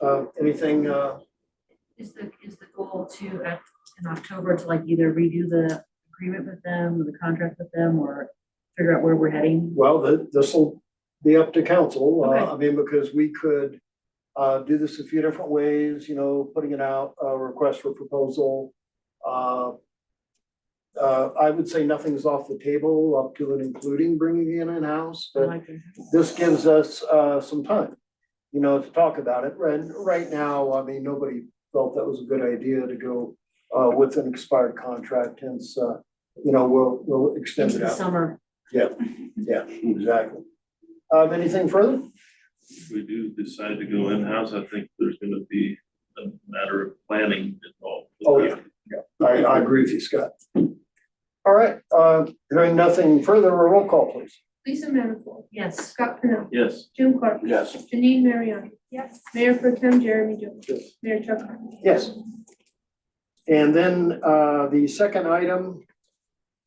Uh, anything, uh, Is the, is the goal to, uh, in October, to like either redo the agreement with them, the contract with them, or figure out where we're heading? well, this will be up to council. Uh, Okay. I mean, because we could uh, do this a few different ways, you know, putting it out, a request for proposal. Uh, uh, I would say nothing's off the table up to and including bringing it in-house, I but like it. this gives us uh some time, you know, to talk about it. And right now, I mean, nobody felt that was a good idea to go uh with an expired contract, hence uh, you know, we'll we'll extend Into it the out. summer. Yeah, exactly. Um, anything further? If we do decide to go in-house, I think there's gonna be a matter of planning involved. with Oh, that. yeah. I I agree with you, Scott. All right, uh, hearing nothing further, a roll call, please. Lisa Manifold, Yes, Scott Pennell, Yes, Jim Clark, Yes. Janine Mariani. Yes. Mayor Pro Tem Jeremy Jones. Mayor Chuck Harmon. Yes. And then uh, the second item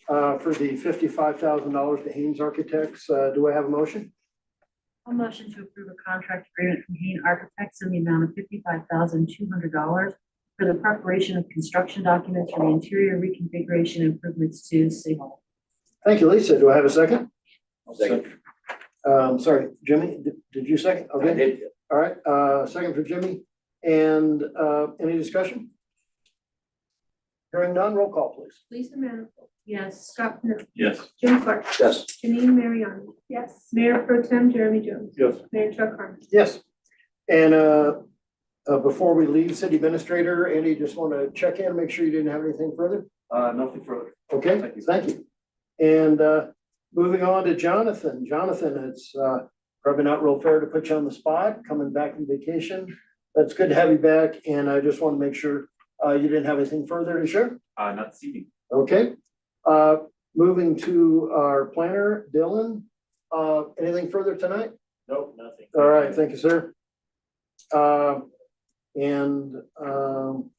uh, for the fifty-five thousand dollars to Haynes Architects, uh, do I have a motion? a motion to approve a contract agreement from Hain Architects in the amount of fifty-five thousand two hundred dollars for the preparation of construction documents for the interior reconfiguration improvements to City Hall. Thank you, Lisa. Do I have a second? Second. Um, Sorry, Jimmy, did- did you second? I Okay, did. all right, uh, second for Jimmy. And uh, any discussion? Hearing none, roll call, please. Lisa Manifold, Yes, Scott Pennell, yes. Jim Clark, Yes. Janine Mariani. Yes. Mayor Pro Tem Jeremy Jones. Yes. Mayor Chuck Harmon. Yes. And uh, uh, before we leave, City Administrator, Andy, just want to check in, make sure you didn't have anything further? Uh, nothing further. Okay, Thank you. thank you. And uh, moving on to Jonathan. Jonathan, it's uh, probably not real fair to put you on the spot, coming back from vacation. That's good to have you back, and I just want to make sure uh, you didn't have anything further to share. Uh, not this evening. Okay. Uh, Moving to our planner, Dylan. Uh, Anything further tonight? Nope, nothing. All right, thank you, sir. Uh, And um,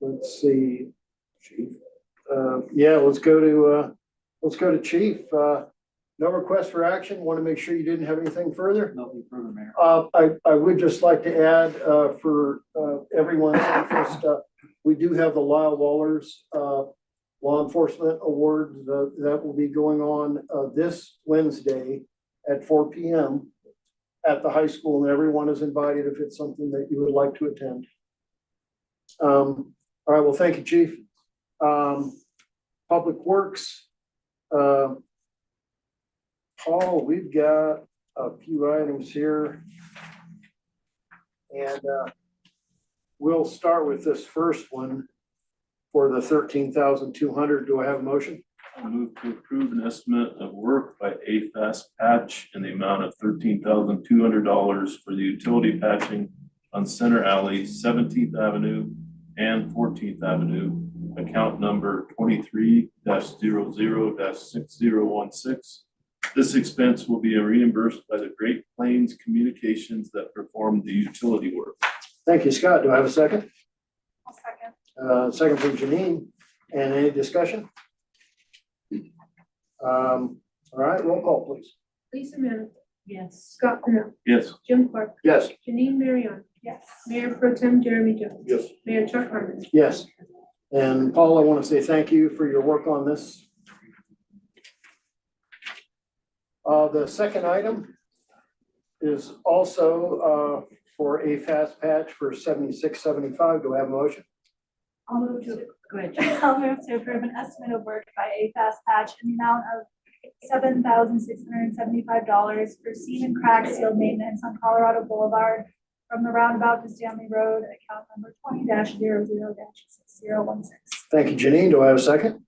let's see. Chief. Uh, Yeah, let's go to, uh, let's go to chief. Uh, No request for action. Want to make sure you didn't have anything further. Nothing further, Mayor. Uh, I, I would just like to add uh, for uh, everyone's interest, uh, we do have the Lyle Wallers uh, Law Enforcement Award uh, that will be going on uh, this Wednesday at four P M at the high school, and everyone is invited if it's something that you would like to attend. Um, All right, well, thank you, Chief. Um, Public Works. uh, Paul, we've got a few items here. And uh, we'll start with this first one for the thirteen thousand two hundred. Do I have a motion? I move to approve an estimate of work by AFAS Patch in the amount of thirteen thousand two hundred dollars for the utility patching on Center Alley, Seventeenth Avenue and Fourteenth Avenue, account number twenty-three 0 six zero one six. This expense will be reimbursed by the Great Plains Communications that performed the utility work. Thank you, Scott. Do I have a second? second. Uh, Second from Janine. And any discussion? Um, All right, roll call, please. Lisa Manifold, yes. Scott Pennell, Yes. Jim Clark, Yes. Janine Mariani. Yes. Mayor Pro Tem Jeremy Jones. Yes. Mayor Chuck Harmon. Yes. And Paul, I want to say thank you for your work on this. Uh, the second item is also, uh, for a fast patch for seventy-six, seventy-five. Do I have a motion? I'll move to, Go ahead, Jen. I'll move to approve an estimate of work by AFAS Patch in the amount of seven thousand six hundred and seventy-five dollars for seam and crack seal maintenance on Colorado Boulevard from the roundabout to Stanley Road, account number twenty 0 six zero one six. Thank you, Janine. Do I have a second?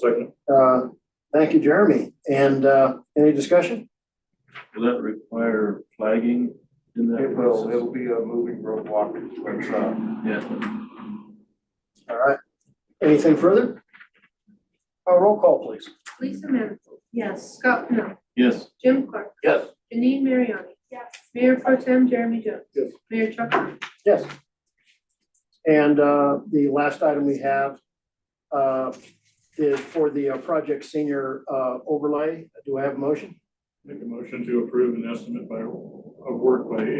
second. Uh, thank you, Jeremy. And, uh, any discussion? Will that require flagging in that? It will, process? it'll be a moving roadblock, which, uh, Yeah, All right. Anything further? Uh, roll call, please. Lisa Manifold, Yes, Scott Pennell, yes. Jim Clark. Yes. Janine Mariani. Yes. Mayor Pro Tem Jeremy Jones. Yes. Mayor Chuck Harmon. Yes. And uh, the last item we have uh, is for the uh, Project Senior uh, Overlay. Do I have a motion? Make a motion to approve an estimate by, of work by